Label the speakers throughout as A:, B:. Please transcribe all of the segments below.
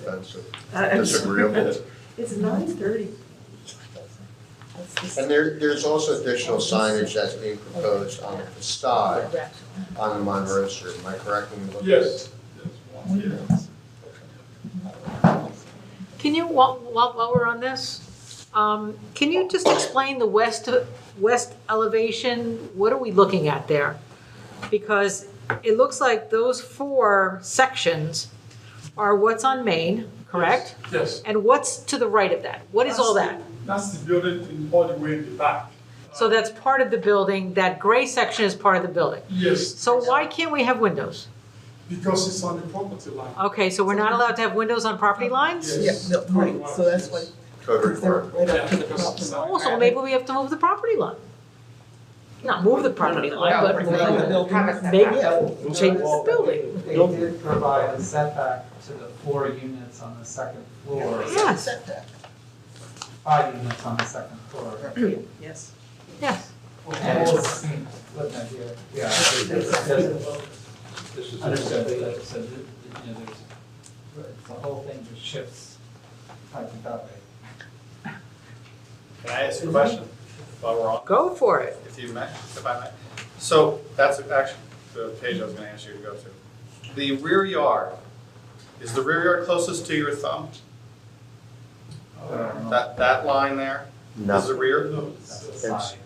A: offensive,
B: I- I'm-
A: disagreeable.
B: It's nine thirty.
A: And there, there's also additional signage that's being proposed on the facade on the Monroe Street, am I correct in looking?
C: Yes.
D: Can you, while, while, while we're on this, um, can you just explain the west, west elevation? What are we looking at there? Because it looks like those four sections are what's on Main, correct?
C: Yes,
D: And what's to the right of that? What is all that?
C: that's the building in all the way in the back.
D: So that's part of the building, that gray section is part of the building.
C: Yes,
D: So why can't we have windows?
C: because it's on the property line.
D: Okay, so we're not allowed to have windows on property lines?
C: Yes.
B: Yeah, no, right, so that's why-
A: Code
B: They're
A: requirement.
B: right up to the
C: Yeah, because it's-
B: property.
D: Oh, so maybe we have to move the property line. Not move the property line, but move
B: Like the
D: the
B: building.
E: Have a
D: Make
E: setback.
B: Yeah.
D: We'll change the building.
F: They did provide a setback to the four units on the second floor,
D: Yes,
B: Setback.
F: five units on the second floor.
B: Yes.
D: yes.
F: And it's, looking at here, yeah.
G: This is.
F: Understood, but like I said, it- it- you know, there's, it's the whole thing just shifts type of that way.
H: Can I ask a question while we're on,
D: Go for it.
H: if you may, if I may? So that's actually the page I was gonna ask you to go to. The rear yard, is the rear yard closest to your thumb? That, that line there is the rear?
C: No,
F: That's
C: it's,
F: the
C: uh,
A: It's-
F: side.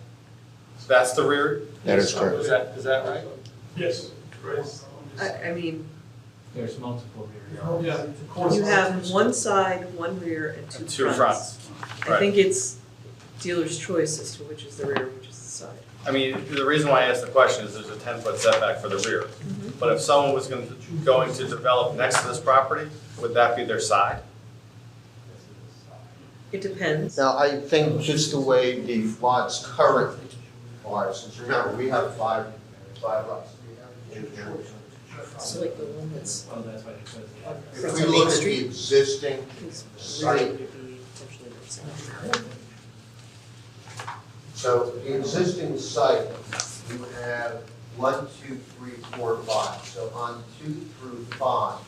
H: That's the rear?
A: That is correct.
H: Is that, is that right?
C: Yes. Grace.
B: I, I mean,
F: There's multiple rear yards.
C: Yeah. of course.
B: you have one side, one rear, and two fronts.
H: Two fronts,
B: I
H: right.
B: think it's dealer's choice as to which is the rear, which is the side.
H: I mean, the reason why I asked the question is there's a ten-foot setback for the rear.
B: Mm-hmm.
H: But if someone was going, going to develop next to this property, would that be their side?
B: It depends.
A: Now, I think just the way the lots currently are, since remember, we have five, five lots.
B: So like the one that's
F: Oh, that's why they chose that.
A: If we look at the existing,
B: rear would be potentially their side.
A: so the existing site, you have one, two, three, four, five. So on two through five,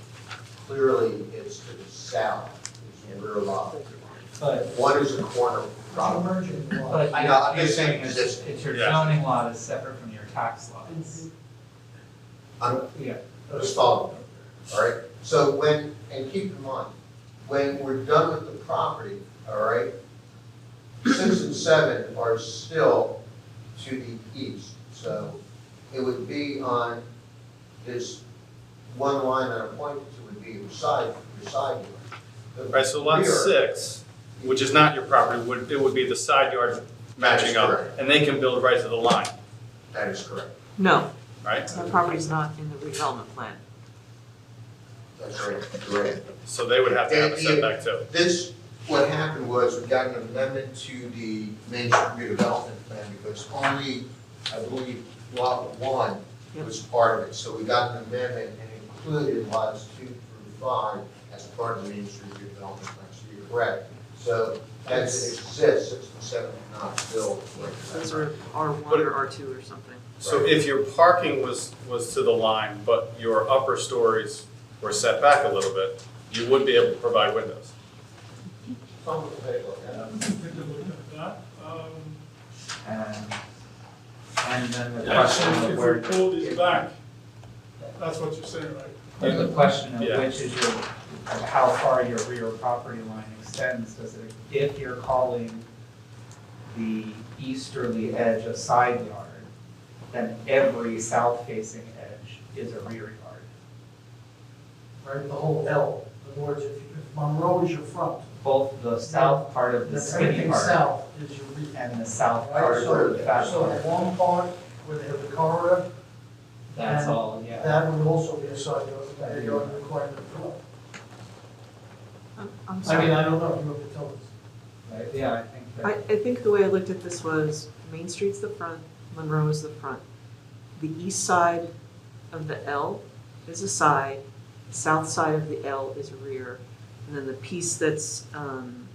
A: clearly it's to the south, is where a lot.
F: But,
A: One is a corner property.
F: but.
A: I know, I'm just saying
F: it's-
A: this-
F: It's your
H: Yeah.
F: zoning lot is separate from your tax lots.
A: I'm
F: Yeah.
A: Let's follow, all right? So when, and keep in mind, when we're done with the property, all right, six and seven are still to the east. So it would be on this one line that I pointed to would be your side, your side yard. The
H: Right, so lot
A: rear-
H: six, which is not your property, would, it would be the side yard matching
A: That is
H: up.
A: correct.
H: And they can build right to the line,
A: That is correct.
D: No,
H: right?
D: the property's not in the redevelopment plan.
A: That's right, correct.
H: So they would have to have a setback too.
A: This, what happened was, we got an amendment to the Main Street redevelopment plan, because only, I believe, lot one was part of it, so we got an amendment and included lots two through five as part of the Main Street redevelopment plan, so you're correct. So that exists, six and seven are not built.
B: Those are R one or R two or something.
H: So if your parking was, was to the line, but your upper stories were set back a little bit, you would be able to provide windows.
A: Someone will take a look at it.
F: Um,
C: Take a look at that. Um,
F: And, and then the question
C: Actually,
F: of
C: if
F: where.
C: we pull this back, that's what you're saying, right?
F: And the question of
H: Yeah.
F: which is your, of how far your rear property line extends, does it, if you're calling the easterly edge a side yard, then every south-facing edge is a rear yard.
I: right, the whole L. In other words, if if Monroe is your front,
F: Both the south part of the
I: then
F: city
I: everything
F: part
I: south is your rear.
F: and the south
I: Right,
F: part
I: so,
F: of the back
I: so
F: part.
I: one part where they have the car wreck,
F: That's all, yeah.
I: that would also be a side yard, a yard requirement for that.
B: I'm, I'm
I: I mean, I don't know, you have to tell us.
F: Right, Yeah, I think
B: I,
F: that,
B: I think the way I looked at this was Main Street's the front, Monroe is the front. The east side of the L is a side, south side of the L is rear, and then the piece that's, um,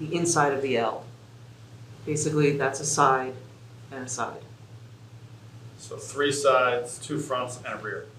B: the inside of the L. Basically, that's a side and a side.
H: So three sides, two fronts, and a rear.
F: um,